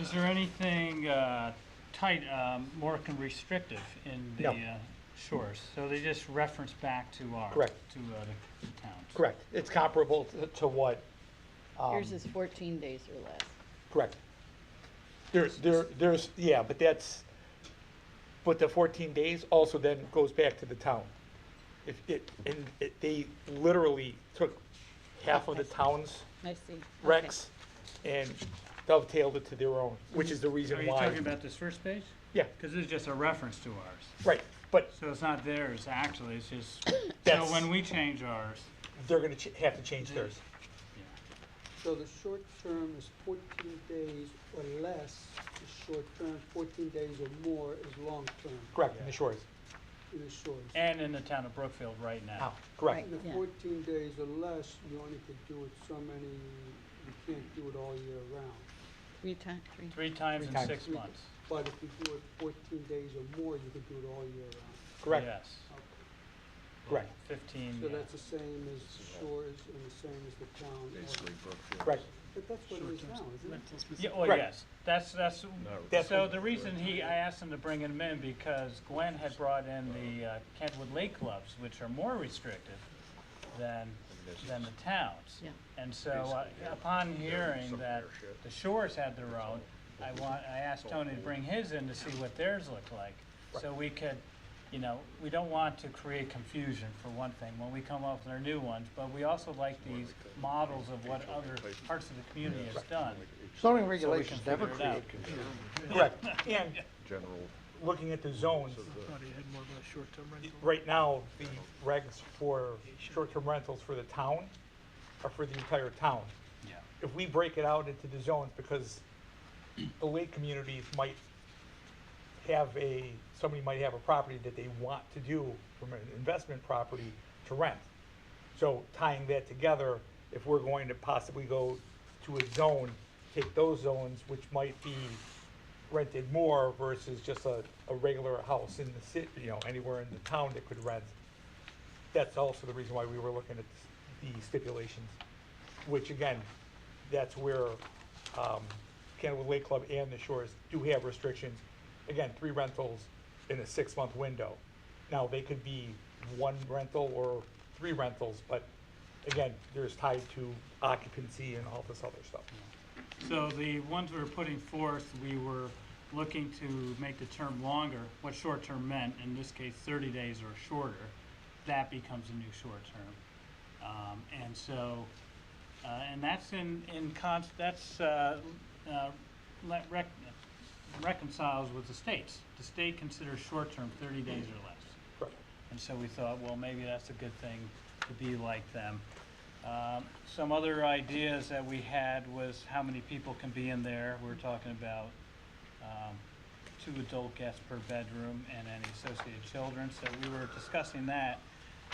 Is there anything uh, tight, um, more con- restrictive in the No. uh, shores? So they just reference back to our, to uh, Correct. the the towns? Correct. It's comparable to- to what, Yours is fourteen days or less. correct. There's, there, there's, yeah, but that's, but the 14 days also then goes back to the town. If it, and it- they literally took half of the town's I see. Okay. recs and dovetailed it to their own, which is the Are reason you why. talking about this first page? Yeah, Because this is just a reference to ours. right, but So it's not theirs, actually, it's just, so That's- when we change ours, they're gonna ch- have to change theirs. So the short term is fourteen days or less, is short term, fourteen days or more is long term Correct, in the shores. in the shores. and in the town of Brookfield right now. Now, correct. Right. And the Yeah. fourteen days or less, you only could do it so many, you can't do it all year round. Three times, three. Three times Three in times. six months. But if you do it fourteen days or more, you could do it all year round. Correct, Yes, Okay. correct, fifteen, So yeah. that's the same as shores and the same as the town. basically Brookfield. correct. But that's what it is now, isn't it? Yeah, well, Right. yes, that's, that's, That's so what- the reason he, I asked him to bring him in because Gwen had brought in the uh, Kentwood Lake Clubs, which are more restrictive than, than the towns. Yeah. And so uh, upon hearing that the shores had their own, I want, I asked Tony to bring his in to see what theirs looked like. So we could, you know, we don't want to create confusion for one thing when we come up with our new ones, but we also like these models of what other parts of the community has done. Zoning regulations never figure it out. create confusion. Correct. And General. looking at the zones, Thought he had more of a short-term rental. right now, the regs for short-term rentals for the town are for the entire town. Yeah. If we break it out into the zones, because the lake communities might have a, somebody might have a property that they want to do from an investment property to rent. So tying that together, if we're going to possibly go to a zone, take those zones, which might be rented more versus just a, a regular house in the city, you know, anywhere in the town that could rent. That's also the reason why we were looking at the stipulations, which again, that's where, um, Candlewood Lake Club and the Shores do have restrictions. Again, three rentals in a six-month window. Now, they could be one rental or three rentals, but again, there's tied to occupancy and all this other stuff. So the ones we were putting forth, we were looking to make the term longer, what short-term meant, in this case, thirty days or shorter. That becomes a new short-term. Um, and so, uh, and that's in, in cons, that's, uh, uh, le- rec- reconciles with the states. The state considers short-term thirty days or less. Correct. And so we thought, well, maybe that's a good thing to be like them. Um, Some other ideas that we had was how many people can be in there. We were talking about um, two adult guests per bedroom and any associated children, so we were discussing that.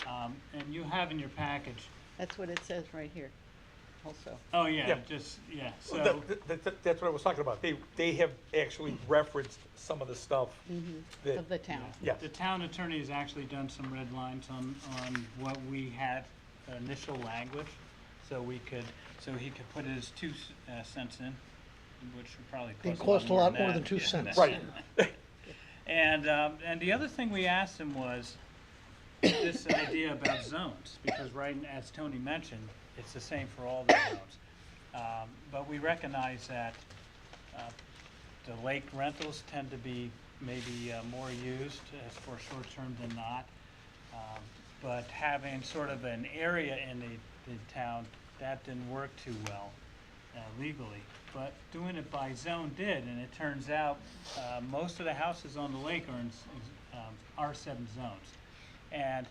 Um, And you have in your package, That's what it says right here also. oh, yeah, Yeah. just, yeah, Well, that- so, that- that- that's what I was talking about. They, they have actually referenced some of the stuff that, Of the town. yeah, the town attorney has actually done some red lines on, on what we had, initial language, so we could, so he could put his two s- uh, cents in, which would probably It cost a lot more than than that. two Yeah. cents. right, And, um, and the other thing we asked him was this idea about zones, because right, as Tony mentioned, it's the same for all the zones. Um, but we recognize that, uh, the lake rentals tend to be maybe uh, more used as for short-term than not. Um, But having sort of an area in the, the town, that didn't work too well uh, legally. But doing it by zone did, and it turns out, uh, most of the houses on the lake are in, s- um, R seven zones. And,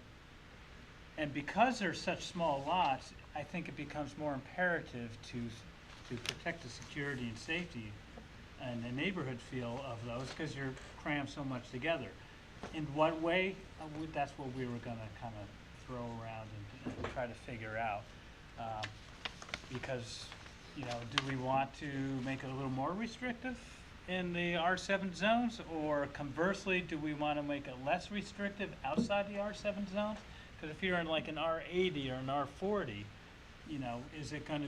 and because they're such small lots, I think it becomes more imperative to, to protect the security and safety and the neighborhood feel of those, because you're crammed so much together. In what way, Uh, we- that's what we were gonna kind of throw around and and try to figure out. Um, Because, you know, do we want to make it a little more restrictive in the R seven zones? Or conversely, do we want to make it less restrictive outside the R seven zones? Because if you're in like an R eighty or an R forty, you know, is it gonna